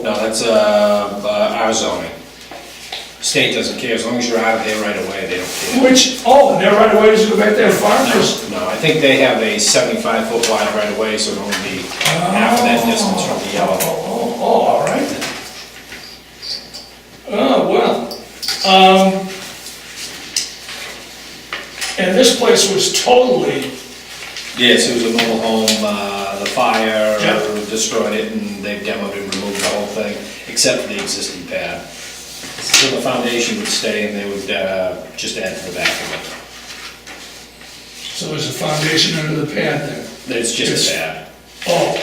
that's, uh, uh, our zoning. State doesn't care, as long as you're out of there right away, they don't care. Which, oh, and their right away is go back there farmers. No, I think they have a seventy-five foot wide right away, so it'll only be half of that distance from the yellow. Oh, oh, all right. then. Oh, well, um, and this place was totally, Yes, it was a mobile home, uh, the fire Yep. destroyed it and they demoed and removed the whole thing, except for the existing pad. So the foundation would stay and they would, uh, just add to the back of it. so there's a foundation under the pad there. It's just a It's- pad, Oh,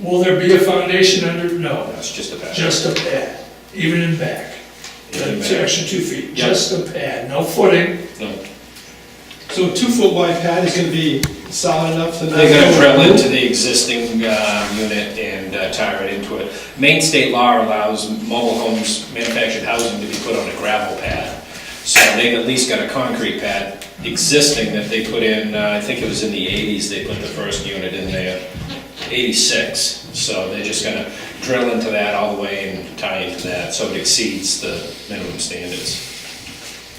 will there be a foundation under, no, that's just a pad. just a pad, even in back. Even in It's back. extra two feet, Yeah. just a pad, no footing. No. So a two-foot wide pad is gonna be solid enough to not... They're gonna drill into the existing uh, unit and uh, tie it into it. Maine state law allows mobile homes, manufactured housing to be put on a gravel pad. So they at least got a concrete pad existing that they put in, uh, I think it was in the eighties, they put the first unit in there, eighty-six. So they're just gonna drill into that all the way and tie into that, so it exceeds the minimum standards.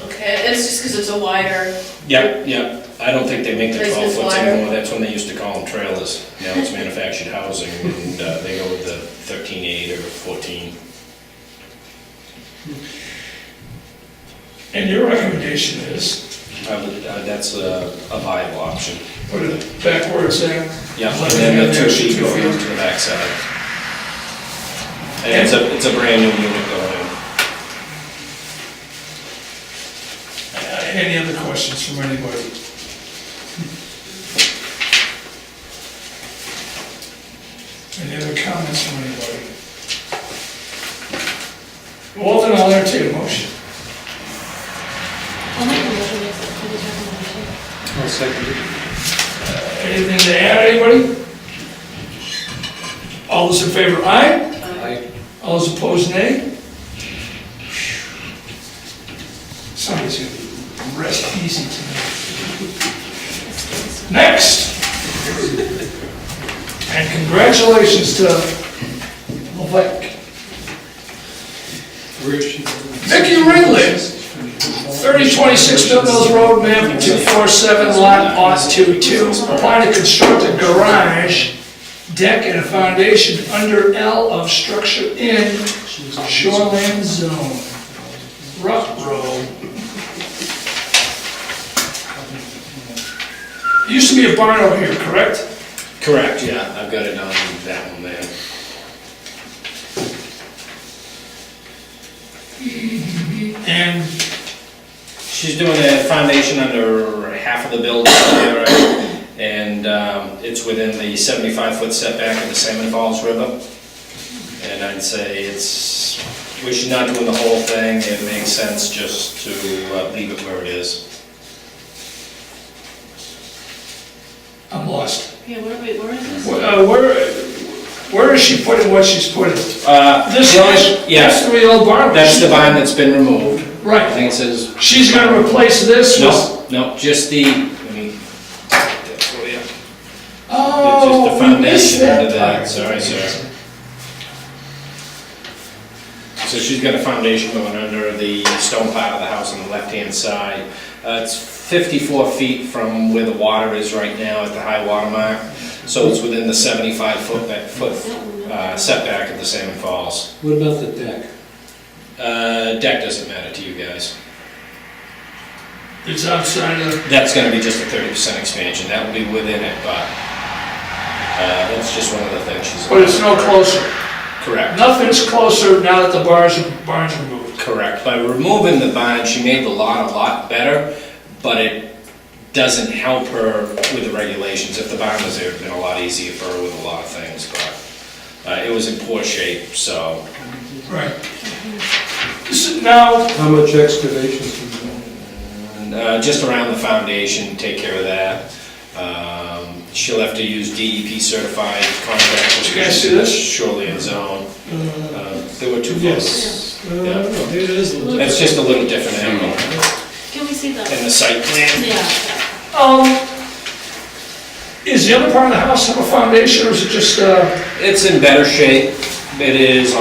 Okay, it's just because it's a wider, Yep, yep, I don't think they make the Place twelve this foots wire. anymore, that's when they used to call them trailers. Now it's manufactured housing, and uh, they go with the thirteen eight or fourteen. And your recommendation is, I would- uh, That's a a viable option. put it back where it's at. Yeah, and Let it then in the there, two feet two going feet. into the backside. And it's a, it's a brand new unit going in. Uh, Any other questions from anybody? Any other comments from anybody? Well, then I'll entertain a motion. I'll make a motion to accept the determination. I'll second it. Anything to add, anybody? All those in favor, aye? Aye. All those opposed, nay? Somebody's gonna rest easy tonight. Next! And congratulations to Levesque. Vicky Ringley, 3026 Millville's Road, map 247, lot lot 22. Apply to construct a garage, deck, and a foundation under L of structure in shoreline zone, rough road. Used to be a barn over here, correct? Correct, yeah, I've got it on that one there. And She's doing a foundation under half of the building there, and um, it's within the 75-foot setback of the Salmon Falls River. And I'd say it's, we should not doing the whole thing, it makes sense just to uh, leave it where it is. I'm lost. yeah, where, wait, where is this? Wh- uh, Where, where is she putting what she's putting? Uh, This, the only- that's Yes, the old barn. that's the vine that's been removed. I Right. think it says, She's gonna replace this with. no, no, just the, I mean, that's what, yeah. Oh, It's just the we missed foundation under that that, part. sorry, sir. So she's got a foundation going under the stone part of the house on the left-hand side. Uh, It's 54 feet from where the water is right now at the high water mark, so it's within the 75-foot foot uh, setback of the Salmon Falls. What about the deck? Uh, Deck doesn't matter to you guys. It's outside of, That's gonna be just a 30% expansion, that will be within it, but uh, that's just one of the things she's... but it's no closer. Correct. Nothing's closer now that the bars, are- barns are moved. Correct. By removing the bond, she made the lot a lot better, but it doesn't help her with the regulations. If the bond was there, it'd been a lot easier for her with a lot of things, but uh, it was in poor shape, so Right. So Now, How much excavation's been done? uh, just around the foundation, take care of that. Um, She'll have to use DEP E certified contractors. You guys see this? Surely in zone. Uh, There were two photos. Yes. Uh, Maybe it is a little... That's just a little different angle Can we see in the, the site plan. yeah, um, is the other part of the house have a foundation or is it just, uh? It's in better shape. It is